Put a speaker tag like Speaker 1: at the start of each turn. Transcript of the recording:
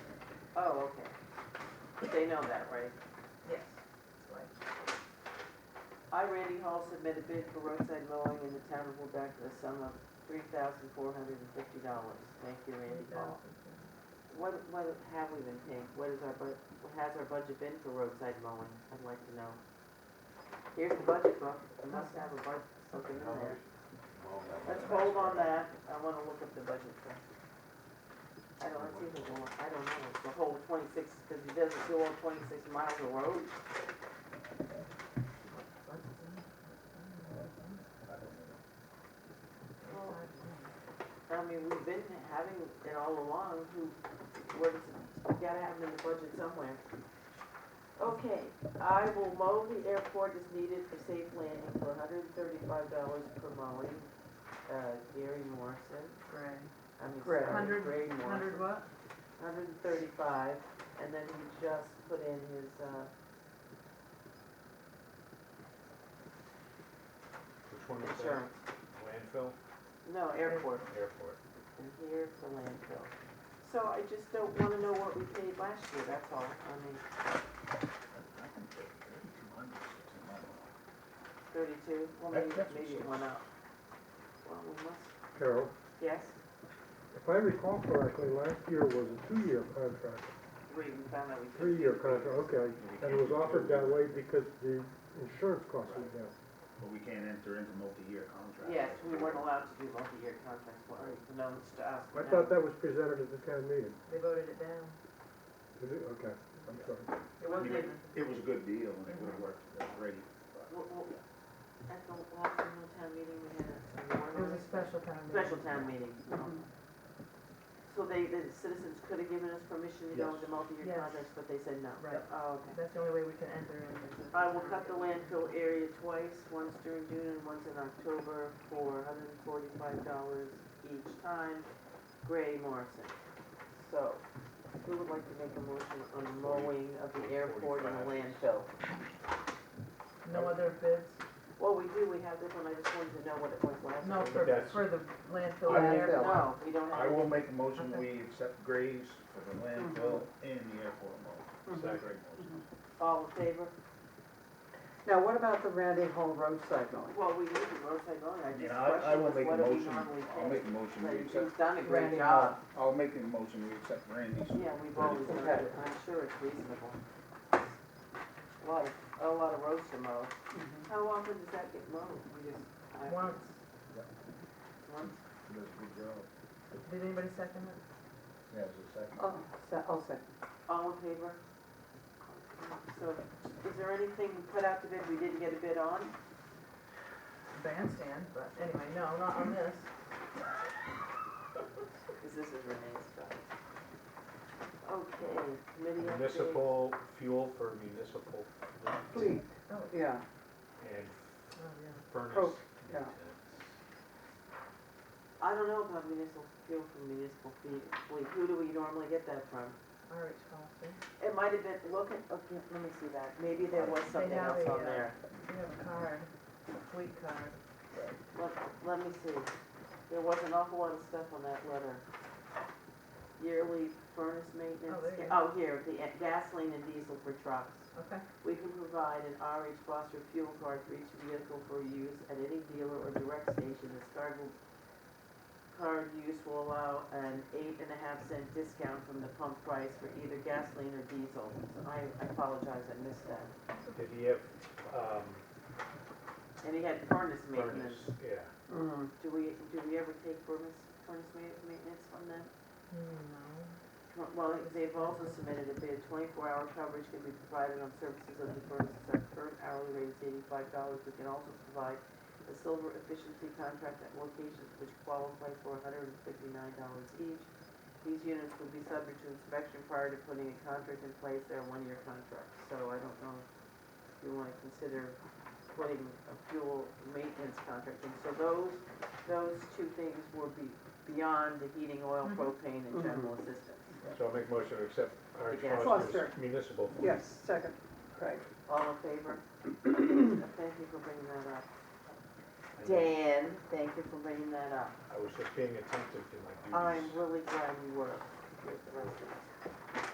Speaker 1: Oh, okay. They know that, right?
Speaker 2: Yes. Right.
Speaker 1: I, Randy Hall, submitted bid for roadside mowing in the town of Lubec in the sum of three thousand four hundred and fifty dollars. Thank you, Randy Hall. What, what have we been paying? What is our bu, has our budget been for roadside mowing? I'd like to know. Here's the budget book. I must have a budget, something in there. Let's hold on that, I wanna look at the budget thing. I don't, it's either one, I don't know, it's the whole twenty-six, cause he doesn't do all twenty-six miles of road. I mean, we've been having it all along, who, where does, it- you gotta have it in the budget somewhere. Okay, I will mow the airport as needed for safe landing for hundred and thirty-five dollars per mowing. Uh, Gary Morrison,
Speaker 2: Right.
Speaker 1: I mean,
Speaker 2: Gray.
Speaker 1: sorry,
Speaker 3: Hundred-
Speaker 1: Gray Morrison.
Speaker 3: Hundred what?
Speaker 1: Hundred and thirty-five, and then he just put in his, uh,
Speaker 4: Which one is that?
Speaker 1: insurance.
Speaker 4: Landfill?
Speaker 1: No, airport,
Speaker 4: Airport.
Speaker 1: and here's the landfill. So I just don't wanna know what we paid last year, that's all, I mean, thirty-two, well,
Speaker 5: That-
Speaker 1: maybe,
Speaker 5: that's
Speaker 1: maybe it
Speaker 5: what's-
Speaker 1: went up. Well, we must,
Speaker 5: Carol,
Speaker 1: yes,
Speaker 5: if I recall correctly, last year was a two-year contract,
Speaker 1: three, we found out we could.
Speaker 5: three-year contract, okay. And it was offered that way because the insurance costs went down.
Speaker 6: But we can't enter into multi-year contracts.
Speaker 1: Yes, we weren't allowed to do multi-year contracts, well, it's known to us.
Speaker 5: I
Speaker 1: now.
Speaker 5: thought that was presented at the town meeting.
Speaker 2: They voted it down.
Speaker 5: Is it? Okay, I'm sorry.
Speaker 1: It
Speaker 6: I
Speaker 1: wasn't,
Speaker 6: mean,
Speaker 1: even-
Speaker 6: It was a good deal and it would have worked great. but-
Speaker 1: w- w- at the last annual town meeting, we had a warrant.
Speaker 3: It was a Mm-hmm. special town meeting.
Speaker 1: Special town meeting. So they, the citizens could have given us permission to go
Speaker 6: Yes.
Speaker 1: into multi-year
Speaker 3: Yes.
Speaker 1: contracts, but they said no.
Speaker 3: Right.
Speaker 1: Oh, okay.
Speaker 3: That's the only way we can enter in. is-
Speaker 1: I will cut the landfill area twice, once during June and once in October for hundred and forty-five dollars each time. Gray Morrison. So, who would like to make a motion on the mowing of the airport and the landfill?
Speaker 3: No other bids?
Speaker 1: Well, we do, we have this one, I just wanted to know what it was last
Speaker 3: No,
Speaker 1: year.
Speaker 3: for,
Speaker 6: That's-
Speaker 3: for the landfill
Speaker 6: I
Speaker 3: there?
Speaker 6: will-
Speaker 1: No, we don't
Speaker 6: I
Speaker 1: have.
Speaker 6: will make a motion,
Speaker 3: Okay.
Speaker 6: we accept Graves for the landfill
Speaker 1: Mm-hmm.
Speaker 6: and the airport mall. Is that a great motion?
Speaker 1: All in favor?
Speaker 7: Now, what about the Randy Hall roadside mowing?
Speaker 1: Well, we need the roadside mowing, I
Speaker 6: I
Speaker 1: just
Speaker 6: mean, I, I will
Speaker 1: questioned
Speaker 6: make a
Speaker 1: what do we
Speaker 6: motion,
Speaker 1: normally
Speaker 6: I'll
Speaker 1: pay?
Speaker 6: make a motion, we
Speaker 1: But
Speaker 6: accept,
Speaker 1: He's done a great
Speaker 7: Randy
Speaker 1: job.
Speaker 6: I'll make a motion, we accept Randy's.
Speaker 1: Yeah, we've always done
Speaker 7: Okay.
Speaker 1: it, I'm sure it's reasonable. A lot of, a lot of roads to mow. How often does that get mowed? We just, I,
Speaker 3: Mm-hmm. Once.
Speaker 1: once?
Speaker 6: He Does a good job.
Speaker 3: Did anybody second it?
Speaker 6: Yeah, it's a second.
Speaker 7: Oh, se- oh, second.
Speaker 1: All in favor? So, is there anything we put out to bid we didn't get a bid on?
Speaker 3: Bandstand, but anyway, no, not on this.
Speaker 1: Because this is Renee's stuff. Okay, committee update.
Speaker 4: Municipal fuel for municipal fleet
Speaker 7: Fleet, yeah,
Speaker 4: and
Speaker 3: Oh, yeah.
Speaker 4: furnace.
Speaker 7: Oh, yeah.
Speaker 1: I don't know about municipal fuel from municipal fleet, fleet. who do we normally get that from?
Speaker 3: All right, Foster.
Speaker 1: It might have been, look at, okay, let me see that, maybe there was
Speaker 3: They
Speaker 1: something
Speaker 3: have
Speaker 1: else
Speaker 3: a,
Speaker 1: on
Speaker 3: uh,
Speaker 1: there.
Speaker 3: We have a card, a fleet card.
Speaker 1: Let, let me see, there was an awful lot of stuff on that letter. Yearly furnace
Speaker 3: Oh, there you
Speaker 1: maintenance,
Speaker 3: go.
Speaker 1: oh, here, the uh, gasoline and diesel for trucks.
Speaker 3: Okay.
Speaker 1: We can provide an RH Foster fuel card for each vehicle for use at any dealer or direct station. This card will, card use will allow an eight and a half cent discount from the pump price for either gasoline or diesel. So I I apologize, I missed that.
Speaker 4: Did he have, um,
Speaker 1: And he had furnace
Speaker 4: furnace,
Speaker 1: maintenance.
Speaker 4: yeah.
Speaker 7: Mm.
Speaker 1: Do we, do we ever take furnace, furnace ma- maintenance from them?
Speaker 2: Hmm,
Speaker 3: No.
Speaker 1: Tw- Well, they've also submitted a bid, twenty-four hour coverage can be provided on services of the furnaces at current hourly rate is eighty-five dollars. We can also provide a silver efficiency contract at locations which qualify for hundred and fifty-nine dollars each. These units will be subject to inspection prior to putting a contract in place, they're one-year contracts. So I don't know if you wanna consider putting a fuel maintenance contract in. So those, those two things will be beyond the heating, oil,
Speaker 3: Mhm.
Speaker 1: propane, and
Speaker 7: Mhm.
Speaker 1: general assistance.
Speaker 4: So I'll make a motion to accept our
Speaker 1: The gas-
Speaker 4: Foster's municipal fleet.
Speaker 7: Yes, second, Craig.
Speaker 1: All in favor? Thank you for bringing that up. Dan, thank you for bringing that up.
Speaker 4: I was just being attentive to my duties.
Speaker 1: I'm really glad you were with the rest of us.